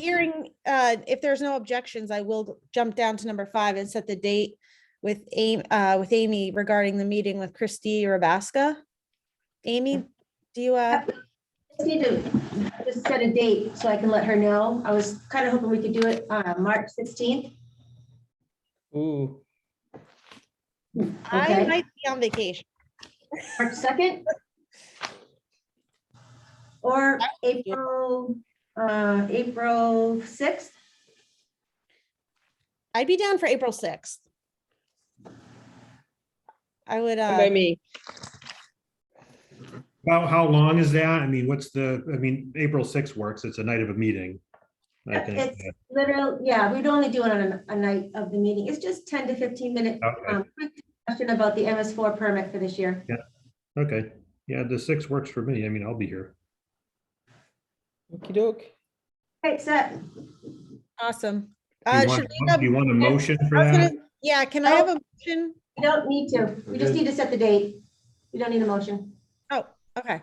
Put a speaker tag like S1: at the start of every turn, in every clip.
S1: Hearing, uh, if there's no objections, I will jump down to number five and set the date with Amy, uh, with Amy regarding the meeting with Christie Rabaska. Amy, do you, uh,
S2: Just need to just set a date so I can let her know. I was kind of hoping we could do it uh, March 16th.
S3: Ooh,
S1: I
S2: Okay.
S1: might be on vacation.
S2: March 2nd? Or April, uh, April 6th?
S1: I'd be down for April sixth. I would,
S3: by
S1: uh,
S3: me.
S4: How, how long is that? I mean, what's the, I mean, April sixth works. It's a night of a meeting. I
S2: Yeah,
S4: think.
S2: it's- Literal, yeah, we'd only do it on a- a night of the meeting. It's just 10 to 15 minute
S4: Okay,
S2: um, quick discussion about the MS4 permit for this year.
S4: okay. Yeah, the sixth works for me. I mean, I'll be here.
S3: Okey doke.
S2: Okay, set.
S1: awesome.
S4: Do
S1: Uh,
S4: you want-
S1: Sharina,
S4: do you want a motion for
S1: I was
S4: that?
S1: gonna- Yeah, can I have a motion?
S2: You don't need to. We just need to set the date. You don't need a motion.
S1: Okay.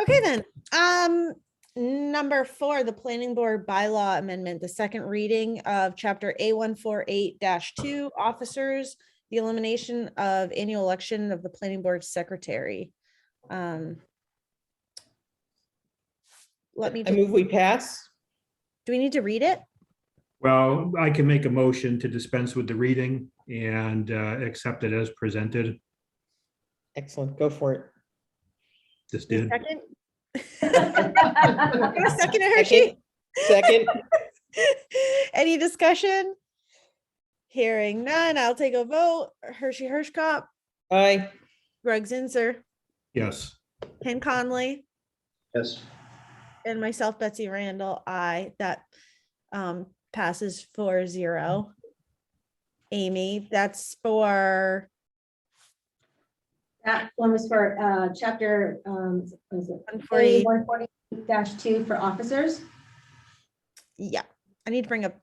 S1: Okay, then, um, number four, the planning board bylaw amendment, the second reading of chapter A one four eight two, officers, the elimination of annual election of the planning board secretary. Um, Let me,
S3: I
S1: just-
S3: move we pass.
S1: do we need to read it?
S4: Well, I can make a motion to dispense with the reading and uh, accept it as presented.
S3: Excellent, go for it.
S4: Just did.
S1: Second,
S2: All
S1: Got a second in her sheet?
S3: Second. Second,
S1: Any discussion? Hearing none, I'll take a vote. Hershey Hirschkopf,
S3: aye.
S1: Greg Zinser,
S4: Yes.
S1: Ken Conley,
S5: Yes.
S1: and myself, Betsy Randall. I, that um, passes four zero. Amy, that's for
S2: That one was for uh, chapter, um, what is it?
S1: one forty.
S2: One forty two for officers.
S1: Yeah, I need to bring up,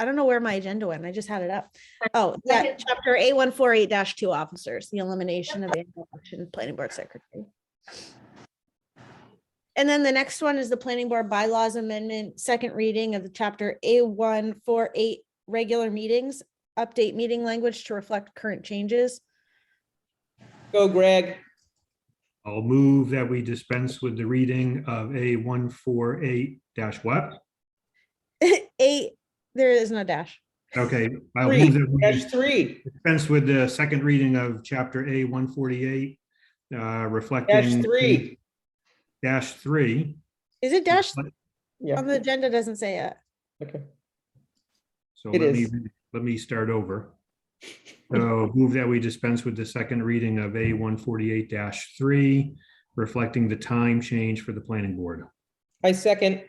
S1: I don't know where my agenda went. I just had it up. Oh, yeah,
S2: Second.
S1: chapter A one four eight two officers, the elimination of annual election planning board secretary. And then the next one is the planning board bylaws amendment, second reading of the chapter A one four eight regular meetings. Update meeting language to reflect current changes.
S3: Go Greg.
S4: I'll move that we dispense with the reading of A one four eight dash what?
S1: Eight, there is no dash.
S4: Okay, I'll
S3: Three,
S4: move that we
S3: dash three,
S4: dispense with the second reading of chapter A one forty-eight, uh,
S3: dash
S4: reflecting.
S3: three.
S4: Dash three.
S1: Is it dash?
S3: Yeah,
S1: On the agenda doesn't say it.
S3: okay.
S4: So
S3: It
S4: let me,
S3: is.
S4: let me start over. So move that we dispense with the second reading of A one forty-eight three, reflecting the time change for the planning board.
S3: I second,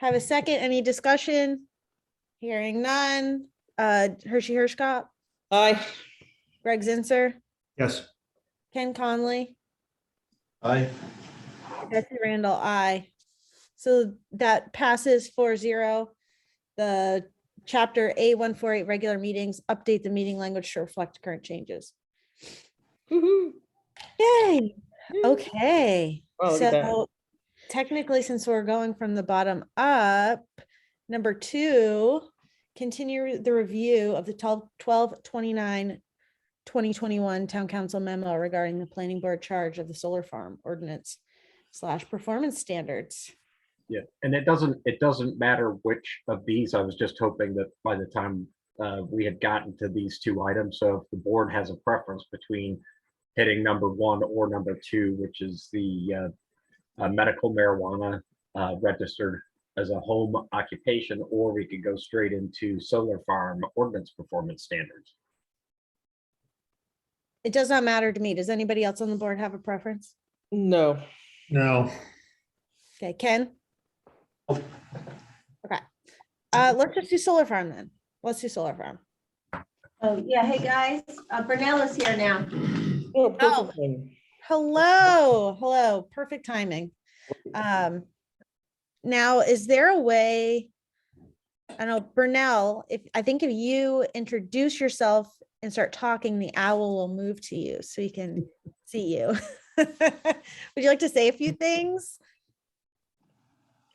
S1: Have a second, any discussion? Hearing none, uh, Hershey Hirschkopf,
S3: aye.
S1: Greg Zinser,
S4: Yes,
S1: Ken Conley,
S5: Aye.
S1: Betsy Randall, I. So that passes 4-0. The chapter A one four eight regular meetings, update the meeting language to reflect current changes.
S3: Woo-hoo.
S1: Yay, okay.
S3: Oh, look at that.
S1: So technically, since we're going from the bottom up, number two, continue the review of the 12 12, 29, 2021 town council memo regarding the planning board charge of the solar farm ordinance slash performance standards.
S6: Yeah, and it doesn't, it doesn't matter which of these, I was just hoping that by the time uh, we had gotten to these two items, so if the board has a preference between hitting number one or number two, which is the uh, uh, medical marijuana uh, registered as a home occupation, or we could go straight into solar farm ordinance performance standards.
S1: It does not matter to me. Does anybody else on the board have a preference?
S3: No,
S4: no,
S1: Okay, Ken? Okay, uh, let's just do solar farm then. Let's do solar farm.
S2: Oh, yeah, hey, guys, uh, Brunello's here now.
S3: no, Oh, perfect one.
S1: Hello, hello, perfect timing. Um, now, is there a way? I know Brunel, if, I think if you introduce yourself and start talking, the owl will move to you so he can see you. Would you like to say a few things?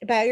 S1: about